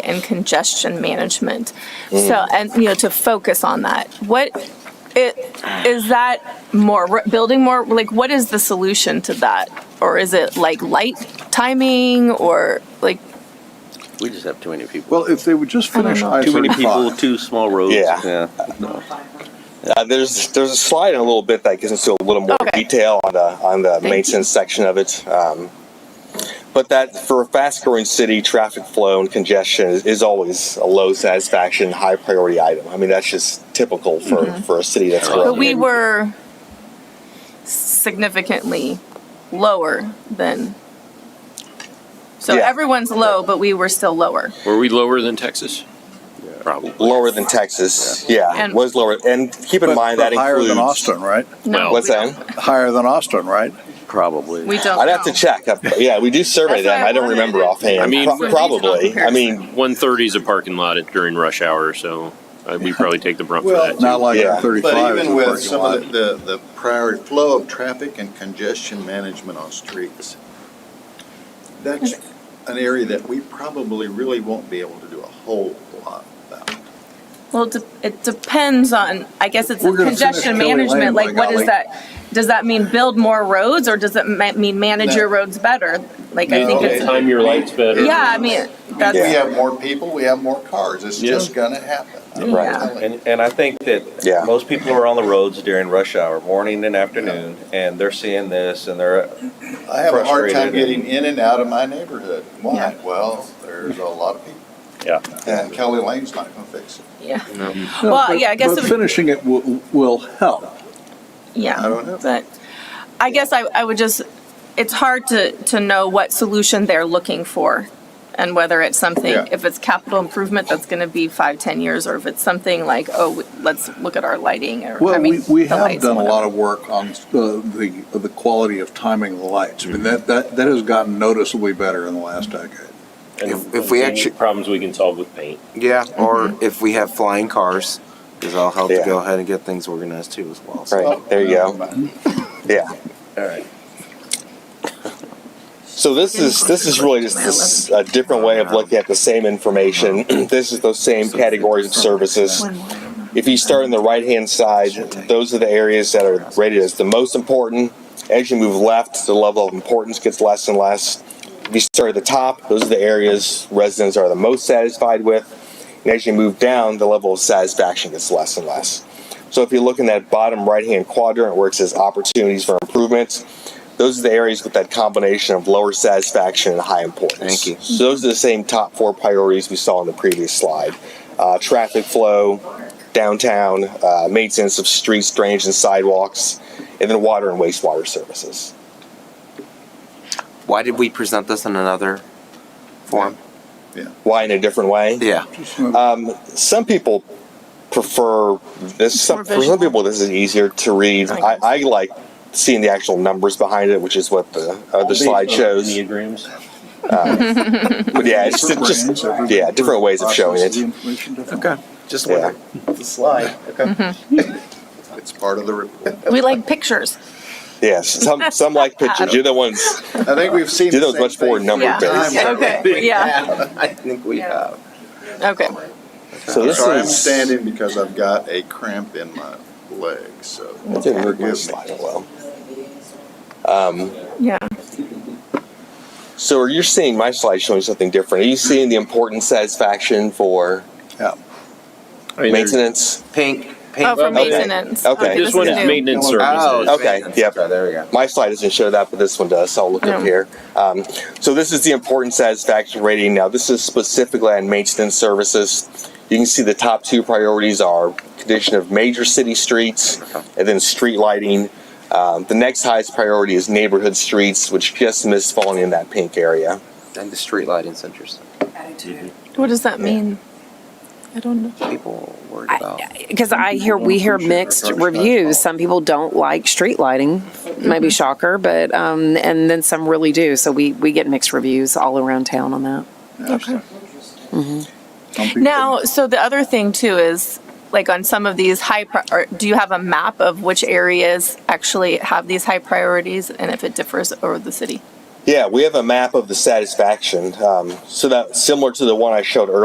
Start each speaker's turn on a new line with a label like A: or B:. A: and congestion management. So, and, you know, to focus on that. What, it, is that more, re- building more, like, what is the solution to that? Or is it like light timing or like,
B: We just have too many people.
C: Well, if they would just
A: don't
C: finish
A: know.
C: I
B: Too many people,
C: thirty-five.
B: too small roads.
D: Yeah.
B: no.
D: Uh, there's there's a slide in a little bit that gets into a little more
A: Okay.
D: detail on the on the
A: you.
D: maintenance section of it. Um, but that for a fast-growing city, traffic flow and congestion is, is always a low satisfaction, high priority item. I mean, that's just typical for,
A: Mm-hmm.
D: for a city that's growing.
A: but we were significantly lower than, so
D: Yeah.
A: everyone's low, but we were still lower.
E: Were we lower than Texas? Probably.
D: lower than Texas. Yeah,
A: And-
D: was lower. And keep in
C: But-
D: mind
C: but
D: that
C: Higher
D: includes.
C: than Austin, right?
A: No,
D: What's
A: we
D: that?
A: don't-
C: Higher than Austin, right?
B: Probably.
A: We don't
D: I'd have to
A: know.
D: check. Yeah, we do survey
A: That's what
D: them.
A: I
D: I don't
A: wanted.
D: remember offhand.
E: I mean-
D: Pro-
A: For regional
D: probably. I mean,
E: One thirty is a parking lot at- during rush hour, so uh, we probably take the brunt for
F: Well,
E: that. too.
C: Not like
D: Yeah.
C: our
F: But
C: thirty-five is a
F: even with
C: parking
F: some of
C: lot.
F: the, the prior flow of traffic and congestion management on streets, that's an area that we probably really won't be able to do a whole lot about.
A: Well, it de- it depends on, I guess it's
C: We're gonna finish
A: congestion
C: Kelly Lane,
A: management,
C: by
A: like what is
C: golly.
A: that? Does that mean build more roads or does it ma- mean manage
F: No.
A: your roads better? Like, I think
F: No.
A: it's,
E: Time your lights better.
A: yeah, I mean,
F: We
A: that's,
F: have more people, we have more cars, it's
E: Yeah.
F: just gonna happen. I'm
A: Right.
F: telling you.
G: And, and I think
D: Yeah.
G: that most people are on the roads during rush hour, morning and afternoon, and they're seeing this and they're,
F: I have a hard time
G: Frustrated.
F: getting in and out of my neighborhood. Why?
A: Yeah.
F: Well, there's a lot of people,
G: yeah.
F: and Kelly Lane's not gonna fix it.
A: yeah,
C: No,
A: Well,
C: but-
A: yeah, I guess
C: But
A: it-
C: finishing it will, will help.
A: yeah.
F: I don't know.
A: But I guess I, I would just, it's hard to, to know what solution they're looking for and whether it's something,
F: Yeah.
A: if it's capital improvement, that's gonna be five, ten years, or if it's something like, oh, w- let's look at our lighting or, I
C: Well, we,
A: mean.
C: we
A: the
C: have
A: lights
C: done
A: and
C: a
A: whatever.
C: lot of work on uh, the, the quality of timing the lights. I mean, that, that, that has gotten noticeably better in the last decade.
E: And
H: If- if we
E: any
H: actu-
E: Problems we can solve with paint.
H: Yeah, or if we have flying cars, because I'll help
D: Yeah.
H: to go ahead and get things organized too as well. So.
D: right there you go. Yeah.
G: All right.
D: So this is, this is really just this, a different way of looking at the same information. This is those same categories of services.
A: One more.
D: If you start on the right-hand side, those are the areas that are rated as the most important. As you move left, the level of importance gets less and less. If you start at the top, those are the areas residents are the most satisfied with. And as you move down, the level of satisfaction gets less and less. So if you look in that bottom right-hand quadrant where it says opportunities for improvements, those are the areas with that combination of lower satisfaction and high importance.
H: Thank you.
D: So those are the same top four priorities we saw in the previous slide. Uh, traffic flow, downtown, uh, maintenance of streets, drainage and sidewalks, and then water and wastewater services.
H: Why did we present this in another form?
D: Why in a different way?
H: Yeah.
D: Um, some people prefer this. Some, for some people, this is easier to read. I, I like seeing the actual numbers behind it, which is what the other slide shows. Um,
E: Enneagrams.
D: But yeah, it's
C: Different
D: just
C: brands, every-
D: yeah, different ways of showing
C: processes the
D: it.
C: information differently.
H: Okay. Just
D: Yeah.
H: wondering.
G: The slide, okay.
A: Mm-hmm.
F: It's part of the report.
A: We like pictures.
D: Yes, some some like pictures. You're the ones.
F: I think we've seen.
D: You're
F: the
D: the ones
F: same
D: much more
F: thing.
D: number
A: Yeah.
D: based.
A: Okay, yeah,
F: I think we have.
A: okay.
D: So
F: I'm
D: this
F: sorry, I'm
D: is
F: standing because I've got a cramp in my leg, so.
D: It didn't work my
F: forgive me.
D: slide oh well. Um,
A: Yeah.
D: so are you seeing my slide showing something different? Are you seeing the important satisfaction for
E: I mean, there's-
D: maintenance?
H: Pink. Pink.
A: Oh, for
D: Okay.
A: maintenance.
D: Okay.
A: Okay,
D: This
E: This one
A: is
E: is
A: new.
E: maintenance
H: Oh,
E: services.
H: it's
D: Okay,
H: pink.
D: yep.
H: So there we go.
D: My slide doesn't show that, but this one does, so I'll look up
A: Yeah.
D: here. Um, so this is the important satisfaction rating. Now, this is specifically on maintenance services. You can see the top two priorities are condition of major city streets and then street lighting. Um, the next highest priority is neighborhood streets, which just missed falling in that pink area.
H: And the street lighting's interesting.
A: What does that mean? I don't know.
H: People worried about.
I: because I hear we hear mixed reviews. Some people don't like street lighting, maybe shocker, but um, and then some really do. So we we get mixed reviews all around town on that.
C: Some people-
A: Now, so the other thing too is, like on some of these high, pri- or do you have a map of which areas actually have these high priorities and if it differs over the city?
D: Yeah, we have a map of the satisfaction. Um, so that similar to the one I showed earlier.